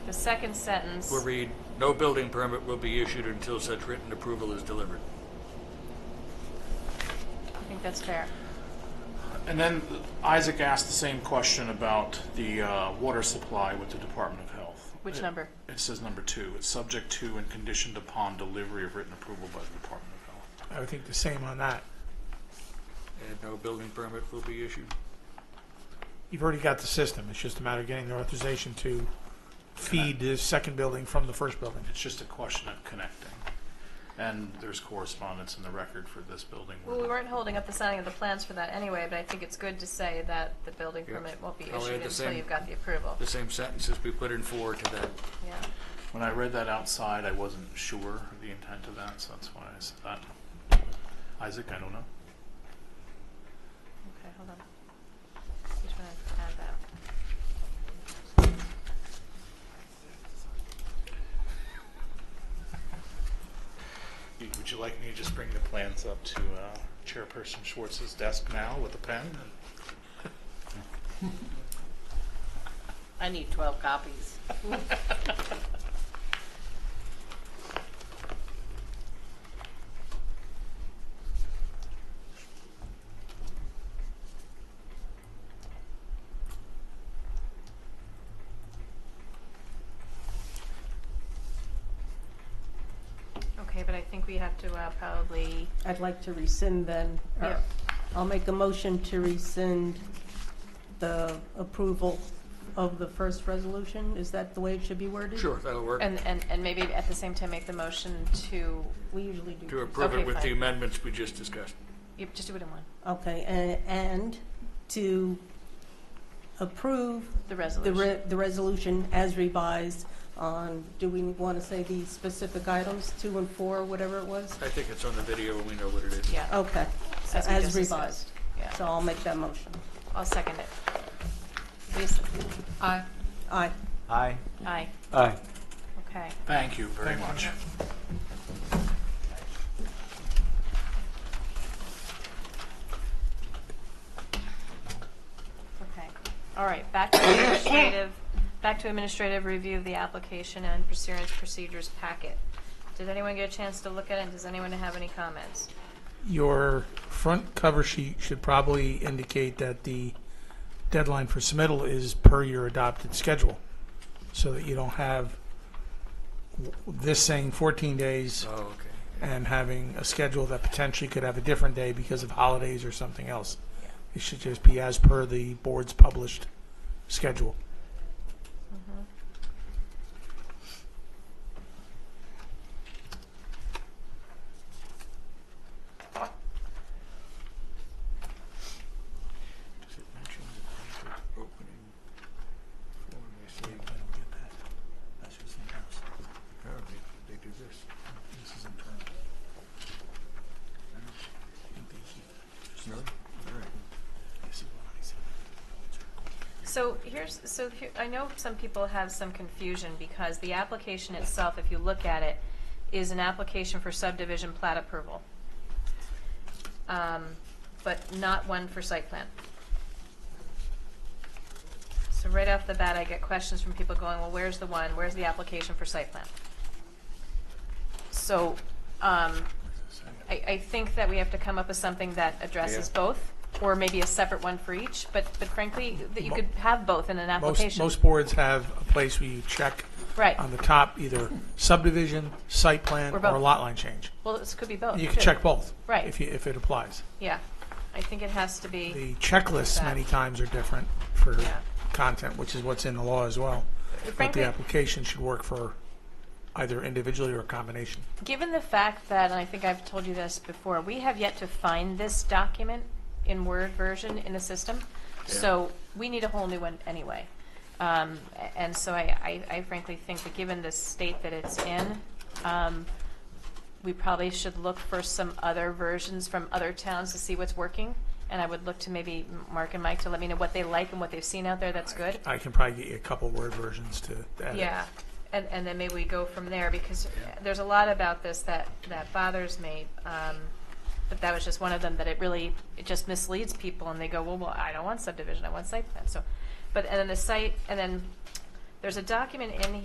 the second sentence, will read, "No building permit will be issued until such written approval is delivered." I think that's fair. And then Isaac asked the same question about the uh, water supply with the Department of Health. Which It- number? It says number two. It's subject to and conditioned upon delivery of written approval by the Department of Health. I would think the same on that. And no building permit will be issued. You've already got the system. It's just a matter of getting the authorization to feed the second building from the first building. It's just a question of connecting. And there's correspondence in the record for this building. where Well, we the- weren't holding up the signing of the plans for that anyway, but I think it's good to say that the building Yeah. permit won't be I'll add issued the until same- you've got the approval. the same sentences we put in four to that. Yeah. When I read that outside, I wasn't sure of the intent of that, so that's why I said that. Isaac, I don't know. Okay, hold on. Just wanna add that. Y- Would you like me to just bring the plans up to uh, Chairperson Schwartz's desk now with a pen? I need 12 copies. Okay, but I think we have to uh, probably, I'd like to rescind then. or Yep. I'll make a motion to rescind the approval of the first resolution. Is that the way it should be worded? Sure, that'll work. and, and, and maybe at the same time make the motion to, We usually To do. approve Okay, it with the fine. amendments we just discussed. you just do it in one, Okay, a- and to approve the the resolution. re- the resolution as revised on, do we want to say the specific items, two and four, whatever it was? I think it's on the video and we know what it is. Yeah, Okay, so as we oh, as just revised. discussed. Yeah, So I'll make that motion. I'll second it. Lisa? Aye. Aye. Aye. Aye, Aye. okay. Thank you very much. Okay, all right, back to administrative, back to administrative review of the application and pursuance procedures packet. Did anyone get a chance to look at it, and does anyone have any comments? Your front cover sheet should probably indicate that the deadline for submittal is per your adopted schedule, so that you don't have w- this saying 14 days Oh, okay. and having a schedule that potentially could have a different day because of holidays or something else. It should just be as per the board's published schedule. Does it mention the things with opening form? They say, oh, they, they do this. No? All right. So here's, so here, I know some people have some confusion because the application itself, if you look at it, is an application for subdivision plat approval. Um, but not one for site plan. So right off the bat, I get questions from people going, well, where's the one, where's the application for site plan? So, um, I, I think that we have to come up with something that addresses Yeah. both, or maybe a separate one for each, but, but frankly, that you could have both in an Most, um, application. most boards have a place where you check Right, on the top either subdivision, site plan, Or or both. lot line change. well, this could be both. You can too. check both. Right. If you, if it applies. Yeah, I think it has to be, The checklists many times are different for Yeah. content, which is what's in the law as well. But frankly, the application should work for either individually or a combination. given the fact that, and I think I've told you this before, we have yet to find this document in Word version in the system, so we need a whole new one anyway. Um, a- and so I, I I frankly think that given the state that it's in, um, we probably should look for some other versions from other towns to see what's working. And I would look to maybe Mark and Mike to let me know what they like and what they've seen out there that's good. I can probably get you a couple word versions to edit. Yeah, and, and then maybe we go from there, because there's a lot about this that, that bothers me. um, But that was just one of them, that it really, it just misleads people, and they go, well, well, I don't want subdivision, I want site plan, so. But, and then the site, and then, there's a document in